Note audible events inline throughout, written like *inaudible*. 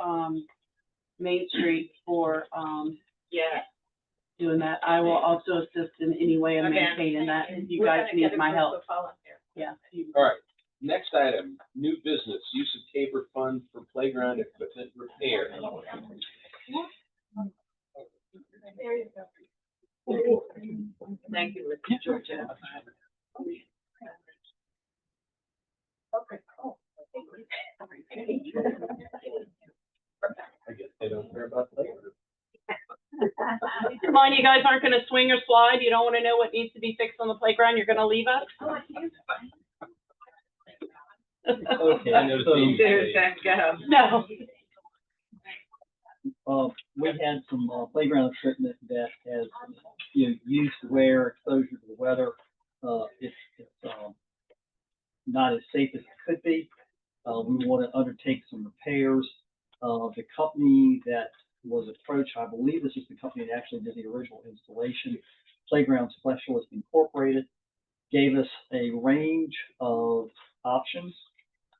um, Main Street for, um, Yeah. doing that. I will also assist in any way of Okay. maintaining that, if you guys need my help, yeah. All right, next item, new business, use of Tabor fund for playground equipment repair. Thank you, Mr. Georgia. I guess they don't care about playground. *laughs* Come on, you guys aren't gonna swing or slide, you don't wanna know what needs to be fixed on the playground, you're gonna leave us? Okay, I know Dean- There's that go. No. uh, we had some uh, playground equipment that has, you know, used wear, exposure to the weather. Uh, it's, it's, um, not as safe as it could be. Uh, we want to undertake some repairs. Uh, the company that was approached, I believe this is the company that actually did the original installation, Playground Specialist Incorporated, gave us a range of options.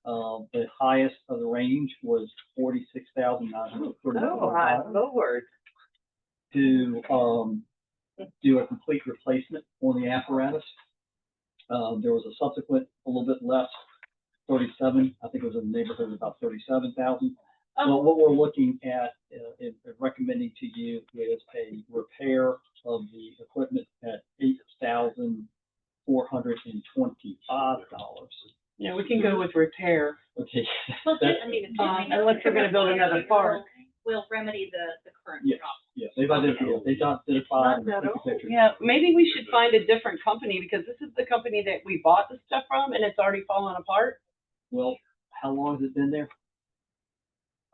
Uh, the highest of the range was forty-six thousand nine hundred Oh, thirty-four my dollars lord. to, um, do a complete replacement on the apparatus. Uh, there was a subsequent, a little bit less, thirty-seven, I think it was in the neighborhood of about thirty-seven thousand. Oh. Well, what we're looking at, uh, and and recommending to you is a repair of the equipment at eight thousand four hundred and twenty-five dollars. Yeah, we can go with repair. *laughs* Okay, Well, That- I mean, it's Um, just- unless they're gonna build another park. Will remedy the, the current Yes. problem. yeah, they've identified, they've identified. and taken pictures. Yeah, maybe we should find a different company, because this is the company that we bought the stuff from, and it's already fallen apart. Well, how long has it been there?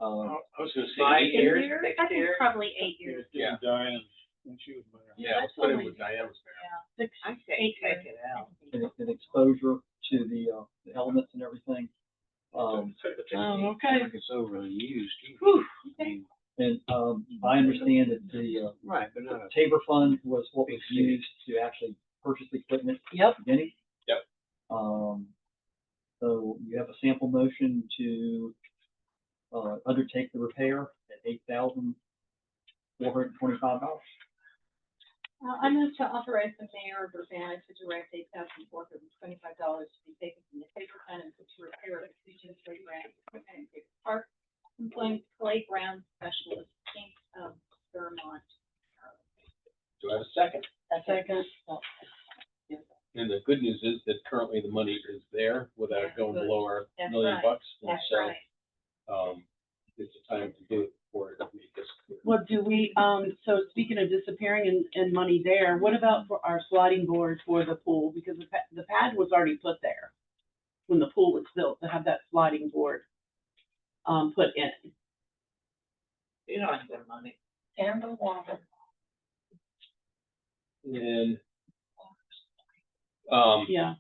Uh, I was gonna say. Five eight years? I think it's probably eight years. Yeah. Diane, when she was mayor. Yeah, let's put it with Diane. Six, I say take it out. and, it- and exposure to the, uh, the elements and everything. Um, Oh, okay. It's overly used. Whew. I mean, and, um, I understand that the, uh, Right, but not. Tabor fund was what was used to actually purchase the equipment yep, at the beginning. Yep. Um, so you have a sample motion to, uh, undertake the repair at eight thousand four hundred and twenty-five dollars. Uh, I move to authorize the mayor of Urbana to direct eight thousand four hundred and twenty-five dollars to be taken from the paper fund and to repair the Legion playground equipment in Big Park, employing playground specialist, Inc. of Vermont. Do I have a second? second. And the good news is that currently the money is there without Yeah, going good. below our That's million right. bucks. And That's right. so, Um, it's a time to do it for it. we just- Well, do we, um, so speaking of disappearing and, and money there, what about for our sliding board for the pool? Because the pad, the pad was already put there when the pool was built, to have that sliding board, um, put in. You don't have the money. And the water. And, um, Yeah,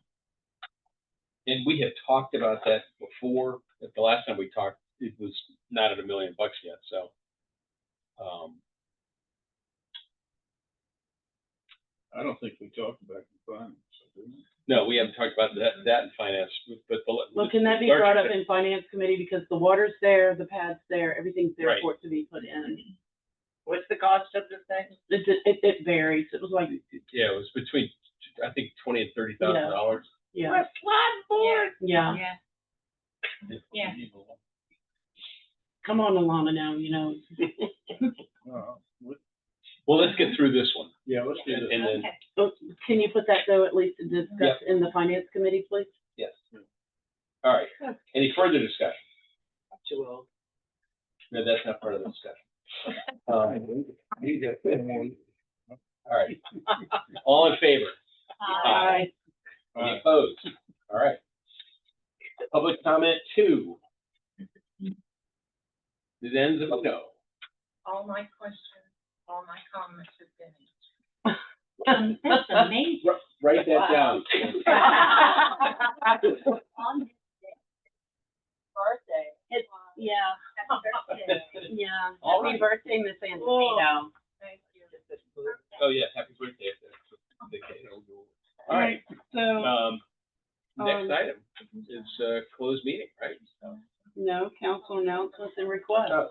And we had talked about that before, but the last time we talked, it was not at a million bucks yet, so. Um, I don't think we talked about the fund, so did we? no, we haven't talked about that, that in finance, but the. well, can that be brought up in finance committee? Because the water's there, the pad's there, everything's there Right. for it to be put in. What's the cost of the thing? It, it, it varies. It was like, Yeah, it was between, I think, twenty and thirty thousand dollars. yeah, slide board. yeah. Yeah. Yeah. Come on, Alana now, you know, No, we- Well, let's get through this one, Yeah, let's do and this. and then, Okay. Oh, can you put that though, at least to discuss in the finance committee, please? yes. All right, any further discussion? Too old. No, that's not part of the discussion. Um, all right. All in favor? Uh, Any opposed? All right. Public comment two. It ends in no. All my questions, all my comments have been answered. Um, that's amazing. Wr- Write that down. *laughs* On this day, birthday. It's- um, Yeah, happy birthday. yeah. All Happy right. birthday, Miss Antonino. Oh. *laughs* Thank you. Oh, yeah, happy birthday. if that's the case. All right, So, um, next Um, item is, uh, closed meeting, right? no council announcements and requests.